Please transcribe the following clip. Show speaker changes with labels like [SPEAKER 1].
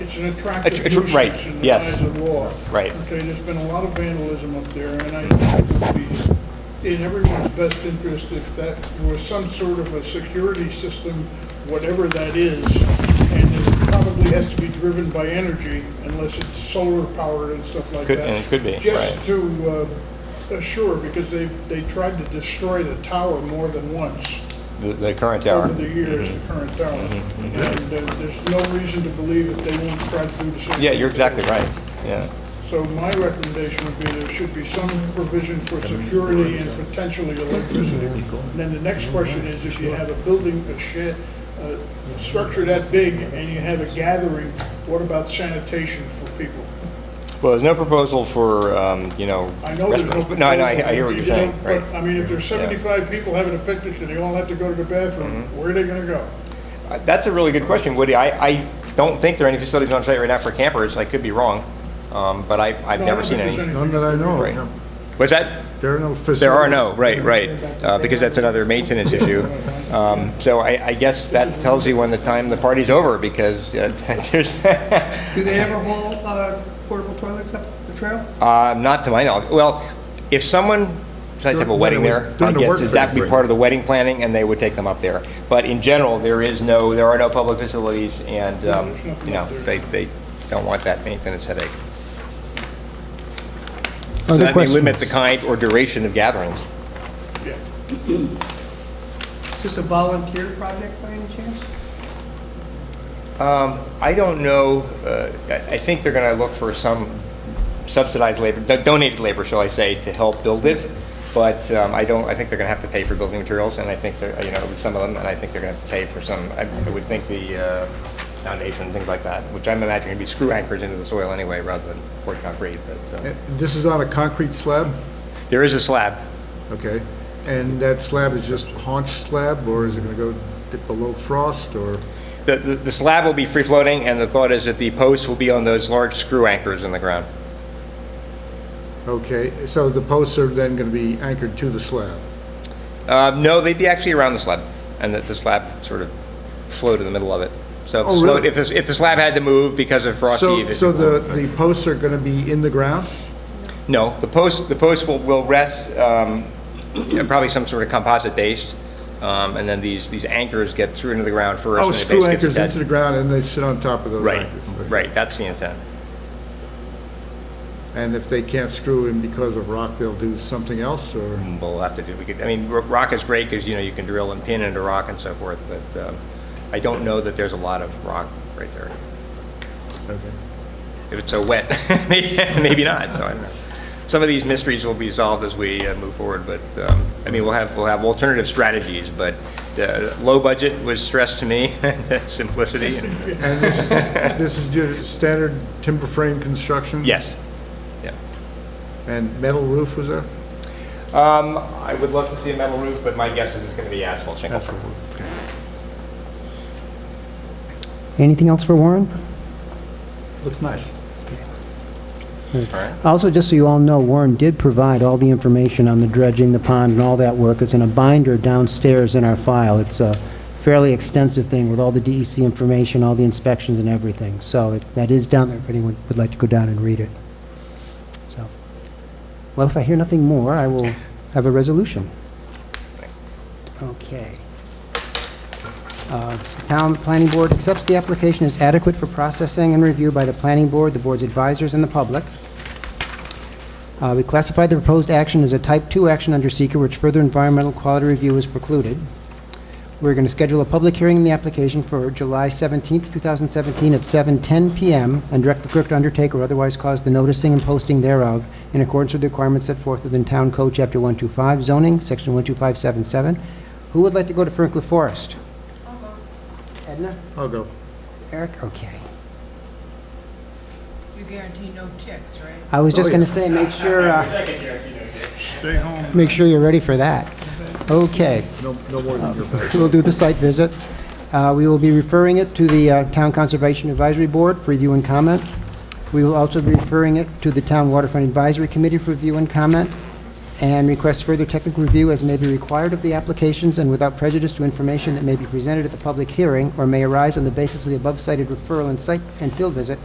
[SPEAKER 1] it's an attractive
[SPEAKER 2] Attr- attr-
[SPEAKER 1] nuisance
[SPEAKER 2] right,
[SPEAKER 1] in the
[SPEAKER 2] yes.
[SPEAKER 1] eyes of law.
[SPEAKER 2] Right.
[SPEAKER 1] Okay, there's been a lot of vandalism up there, and I think it would be in everyone's best interest if that was some sort of a security system, whatever that is, and it probably has to be driven by energy unless it's solar powered and stuff like
[SPEAKER 2] Could-
[SPEAKER 1] that.
[SPEAKER 2] and it could be, right.
[SPEAKER 1] Just to uh, assure, because they, they tried to destroy the tower more than once
[SPEAKER 2] the, the current tower.
[SPEAKER 1] over the years, the current tower. And uh, there's no reason to believe that they won't try to do the same.
[SPEAKER 2] Yeah, you're
[SPEAKER 1] thing.
[SPEAKER 2] exactly right, yeah.
[SPEAKER 1] So my recommendation would be there should be some provision for security and potentially electricity. And Then the next question is if you have a building, a shed, a structure that big and you have a gathering, what about sanitation for people?
[SPEAKER 2] Well, there's no proposal for, um, you know,
[SPEAKER 1] I know there's no.
[SPEAKER 2] restaurants, but no, I know, I I hear what you're
[SPEAKER 1] you know,
[SPEAKER 2] saying, right.
[SPEAKER 1] But I mean, if there's seventy-five people having a picnic and they all have to go to the bathroom,
[SPEAKER 2] Mm-hmm.
[SPEAKER 1] where are they gonna go?
[SPEAKER 2] Uh, That's a really good question, Woody. I, I don't think there are any facilities on site right now for campers, I could be wrong, um, but I, I've
[SPEAKER 1] No, I
[SPEAKER 2] never
[SPEAKER 1] don't
[SPEAKER 2] seen
[SPEAKER 1] think there's
[SPEAKER 2] any.
[SPEAKER 3] None that I know
[SPEAKER 2] Right.
[SPEAKER 3] of.
[SPEAKER 2] Was that,
[SPEAKER 3] There are no facilities.
[SPEAKER 2] there are no, right, right, uh, because that's another maintenance issue. Um, So I, I guess that tells you when the time the party's over, because uh, there's,
[SPEAKER 4] Do they ever haul uh, portable toilets up the trail?
[SPEAKER 2] Uh, Not to my knowledge. Well, if someone decides to have a
[SPEAKER 3] During-
[SPEAKER 2] wedding
[SPEAKER 3] when it was-
[SPEAKER 2] there, I
[SPEAKER 3] during the work
[SPEAKER 2] guess that'd be
[SPEAKER 3] phase,
[SPEAKER 2] part of the wedding planning, and they would take them up there. But in general, there is no, there are no public facilities, and, um,
[SPEAKER 1] there's nothing
[SPEAKER 2] you know,
[SPEAKER 1] up there.
[SPEAKER 2] they, they don't want that maintenance headache. So
[SPEAKER 5] Other
[SPEAKER 2] that may limit the
[SPEAKER 5] questions?
[SPEAKER 2] kind or duration of gatherings.
[SPEAKER 1] Yeah.
[SPEAKER 4] Is this a volunteer project by any chance?
[SPEAKER 2] Um, I don't know, uh, I I think they're going to look for some subsidized labor, do- donated labor, shall I say, to help build it, but um, I don't, I think they're going to have to pay for building materials, and I think, they're you know, with some of them, and I think they're going to have to pay for some, I I would think the uh, foundation, things like that, which I'm imagining would be screw anchors into the soil anyway, rather than poured concrete, but uh,
[SPEAKER 3] And Eh, This is on a concrete slab,
[SPEAKER 2] there is a slab.
[SPEAKER 3] okay? And that slab is just haunch slab, or is it going to go dip below frost, or?
[SPEAKER 2] The- The the slab will be free-floating, and the thought is that the posts will be on those large screw anchors in the ground.
[SPEAKER 3] Okay, so the posts are then going to be anchored to the slab?
[SPEAKER 2] Uh, No, they'd be actually around the slab, and that the slab sort of flowed in the middle of it. So if the
[SPEAKER 3] Oh,
[SPEAKER 2] slab,
[SPEAKER 3] really?
[SPEAKER 2] if the, if the slab had to move because of frosty...
[SPEAKER 3] So,
[SPEAKER 2] it-
[SPEAKER 3] so the, the posts are going to be in the ground?
[SPEAKER 2] No, the post, the post will, will rest, um, you know, probably some sort of composite based, um, and then these, these anchors get through into the ground first.
[SPEAKER 3] Oh,
[SPEAKER 2] and the
[SPEAKER 3] screw
[SPEAKER 2] base gets
[SPEAKER 3] anchors
[SPEAKER 2] attached.
[SPEAKER 3] into the ground, and they sit on top of those
[SPEAKER 2] Right,
[SPEAKER 3] anchors?
[SPEAKER 2] right, that's the intent.
[SPEAKER 3] And if they can't screw in because of rock, they'll do something else, or?
[SPEAKER 2] We'll have to do, we could, I mean, ro- rock is great because, you know, you can drill and pin into rock and so forth, but um, I don't know that there's a lot of rock right there.
[SPEAKER 3] Okay.
[SPEAKER 2] if it's so wet, maybe maybe not, so I don't know. Some of these mysteries will be solved as we uh, move forward, but, um, I mean, we'll have, we'll have alternative strategies, but uh, low budget was stressed to me, simplicity, and,
[SPEAKER 3] And this, this is your standard timber frame construction?
[SPEAKER 2] yes. Yeah.
[SPEAKER 3] And metal roof was that?
[SPEAKER 2] Um, I would love to see a metal roof, but my guess is it's going to be asphalt shingle.
[SPEAKER 5] Anything else for Warren?
[SPEAKER 3] Looks nice.
[SPEAKER 2] All right.
[SPEAKER 5] Also, just so you all know, Warren did provide all the information on the dredging, the pond, and all that work. It's in a binder downstairs in our file. It's a fairly extensive thing with all the DEC information, all the inspections and everything. So it- that is down there if anyone would like to go down and read it. So, well, if I hear nothing more, I will have a resolution. Okay. Uh, Town Planning Board accepts the application as adequate for processing and review by the Planning Board, the Board's advisors, and the public. Uh, We classify the proposed action as a Type 2 action under seeker, which further environmental quality review is precluded. We're going to schedule a public hearing in the application for July 17th, 2017, at 7:10 PM, and direct the clerk to undertake or otherwise cause the noticing and posting thereof in accordance with the requirements set forth within Town Code, Chapter 125, zoning, Section 12577. Who would like to go to Franklin Forest? Edna?
[SPEAKER 3] I'll go.
[SPEAKER 5] Eric? Okay.
[SPEAKER 6] You guarantee no ticks, right?
[SPEAKER 5] I was just
[SPEAKER 3] Oh,
[SPEAKER 5] going to say, make sure, uh,
[SPEAKER 1] Stay home.
[SPEAKER 5] make sure you're ready for that. Okay. Uh,
[SPEAKER 3] No, no more than your best.
[SPEAKER 5] We'll do the site visit. Uh, We will be referring it to the uh, Town Conservation Advisory Board for review and comment. We will also be referring it to the Town Waterfront Advisory Committee for review and comment, and request further technical review as may be required of the applications and without prejudice to information that may be presented at the public hearing or may arise on the basis of the above cited referral and site and field visit